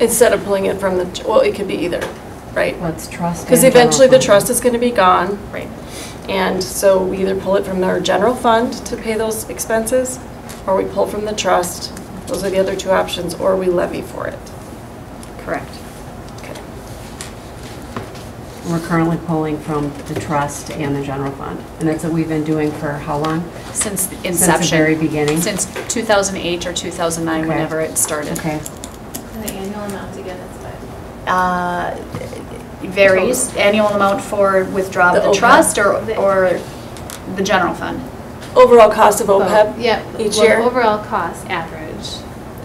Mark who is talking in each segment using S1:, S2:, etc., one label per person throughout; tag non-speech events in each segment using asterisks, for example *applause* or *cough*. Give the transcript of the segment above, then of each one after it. S1: instead of pulling it from the, well, it could be either, right?
S2: Let's trust.
S1: Because
S2: and general
S1: eventually the
S2: fund.
S1: trust is going to be gone,
S2: Right.
S1: and so we either pull it from our general fund to pay those expenses, or we pull from the trust. Those are the other two options, or we levy for it.
S2: Correct.
S1: Okay.
S2: We're currently pulling from the trust and the general fund. And that's what we've been doing for how long?
S3: Since the
S2: Since the
S3: inception.
S2: very beginning?
S3: Since 2008 or 2009,
S2: Okay.
S3: whenever it started.
S2: Okay.
S4: And the annual amount again is five.
S3: Uh, it Varies, annual amount for withdrawal
S1: The
S3: of the
S1: OPEB.
S3: trust or,
S4: The-
S3: or the general fund?
S1: Overall cost of OPEB?
S4: Yeah.
S1: Each
S4: well,
S1: year?
S4: Overall cost average,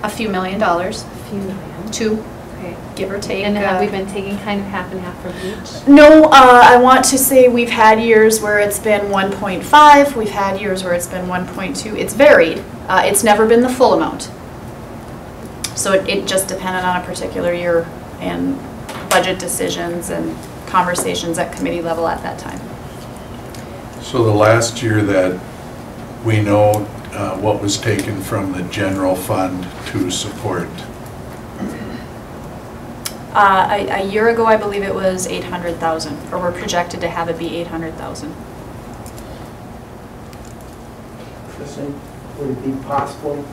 S3: A few million dollars,
S4: a few million.
S3: two,
S4: Okay.
S3: give or take.
S4: And
S3: uh,
S4: have we been taking kind of half and half from each?
S3: No, uh, I want to say we've had years where it's been 1.5, we've had years where it's been 1.2. It's varied. Uh, It's never been the full amount. So it- it just depended on a particular year and budget decisions and conversations at committee level at that time.
S5: So the last year that we know uh, what was taken from the general fund to support,
S3: Uh, A a year ago, I believe it was 800,000, or we're projected to have it be 800,000.
S6: Kristen, would it be possible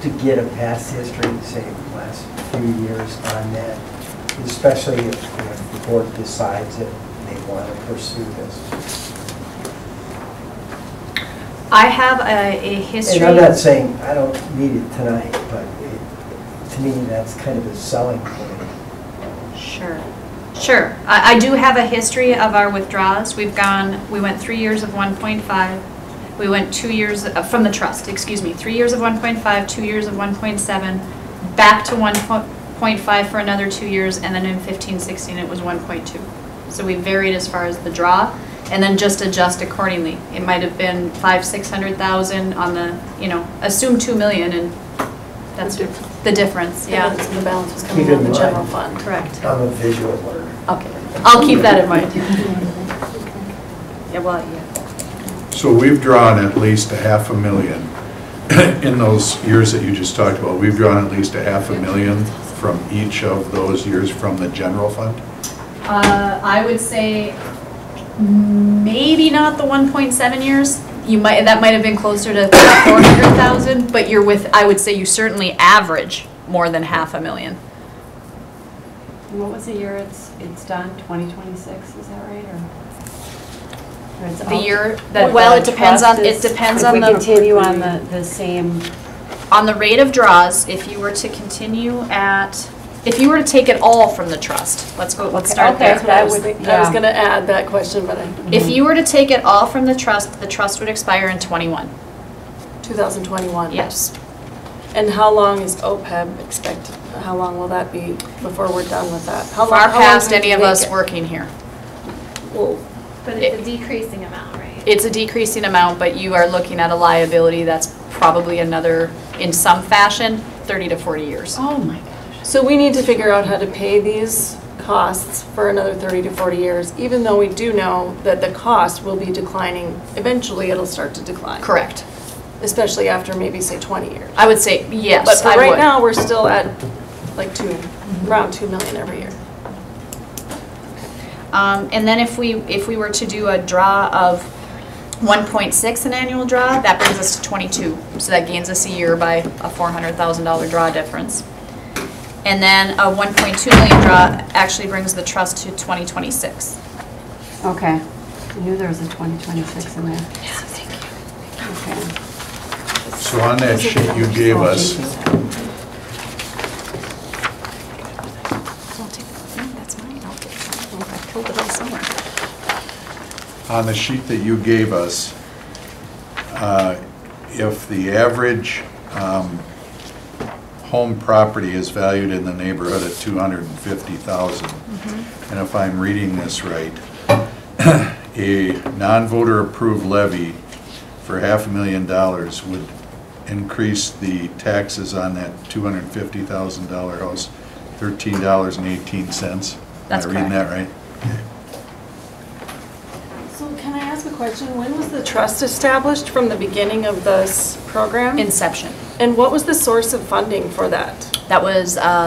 S6: to get a past history, say, the last few years on that? Especially if you know, the board decides that they want to pursue this.
S3: I have a a history.
S6: And I'm not saying, I don't need it tonight, but it- to me, that's kind of a selling point.
S3: Sure, sure. I, I do have a history of our withdrawals. We've gone, we went three years of 1.5, we went two years, uh, from the trust, excuse me, three years of 1.5, two years of 1.7, back to 1.5 for another two years, and then in 15, 16, it was 1.2. So we varied as far as the draw, and then just adjust accordingly. It might have been five, 600,000 on the, you know, assume 2 million, and that's the difference,
S1: Yeah,
S3: yeah.
S1: the balance was
S6: Keep
S1: coming
S6: it
S1: out of the
S6: in
S1: general
S6: mind.
S1: fund.
S3: Correct.
S6: I'm a visual learner.
S3: Okay, I'll keep that in mind. Yeah, well, yeah.
S5: so we've drawn at least a half a million. *clears throat* In those years that you just talked about, we've drawn at least a half a million from each of those years from the general fund?
S3: Uh, I would say maybe not the one point seven years. You might, that might have been closer to four hundred thousand, but you're with, I would say you certainly average more than half a million.
S2: What was the year it's, it's done? 2026, is that right, or? or it's
S3: The
S2: out-
S3: year that,
S2: Or
S3: well, it
S2: the
S3: depends on,
S2: trust
S3: it
S2: is-
S3: depends on
S2: If we
S3: the,
S2: continue on the, the same,
S3: on the rate of draws. If you were to continue at, if you were to take it all from the trust, let's go, let's
S2: Okay,
S3: start
S2: okay.
S3: there.
S1: That's what I was
S2: Yeah.
S1: thinking. I was going to add that question, but I,
S3: If you were to take it all from the trust, the trust would expire in twenty-one.
S1: 2021.
S3: Yes.
S1: And how long is OPEB expected, how long will that be before we're done with that? How long-
S3: Far
S1: how long
S3: past
S1: do we
S3: any of
S1: make
S3: us
S1: it?
S3: working here.
S1: Well,
S4: But it's a decreasing amount, right?
S3: It's a decreasing amount, but you are looking at a liability that's probably another, in some fashion, 30 to 40 years.
S2: oh my gosh.
S1: So we need to figure out how to pay these costs for another 30 to 40 years, even though we do know that the cost will be declining. Eventually, it'll start to decline.
S3: Correct.
S1: Especially after maybe, say, 20 years.
S3: I would say, yes,
S1: But for
S3: I
S1: right
S3: would.
S1: now, we're still at like two, around 2 million every year.
S3: Um, And then if we, if we were to do a draw of 1.6 an annual draw, that brings us to 22. So that gains us a year by a $400,000 draw difference. And then a 1.2 million draw actually brings the trust to 2026.
S2: Okay. I knew there was a 2026 in there. Okay.
S5: So on that sheet you gave
S2: Oh,
S5: us,
S2: thank you.
S3: I'll take that. That's mine. I'll take that. I killed it all somewhere.
S5: on the sheet that you gave us, uh, if the average um, home property is valued in the neighborhood at 250,000,
S3: Mm-hmm.
S5: and if I'm reading this right, *clears throat* a non-voter-approved levy for half a million dollars would increase the taxes on that $250,000 house $13.18.
S3: That's
S5: Am I
S3: correct.
S5: reading that right?
S1: So can I ask a question? When was the trust established from the beginning of this program?
S3: Inception.
S1: And what was the source of funding for that?
S3: That was uh,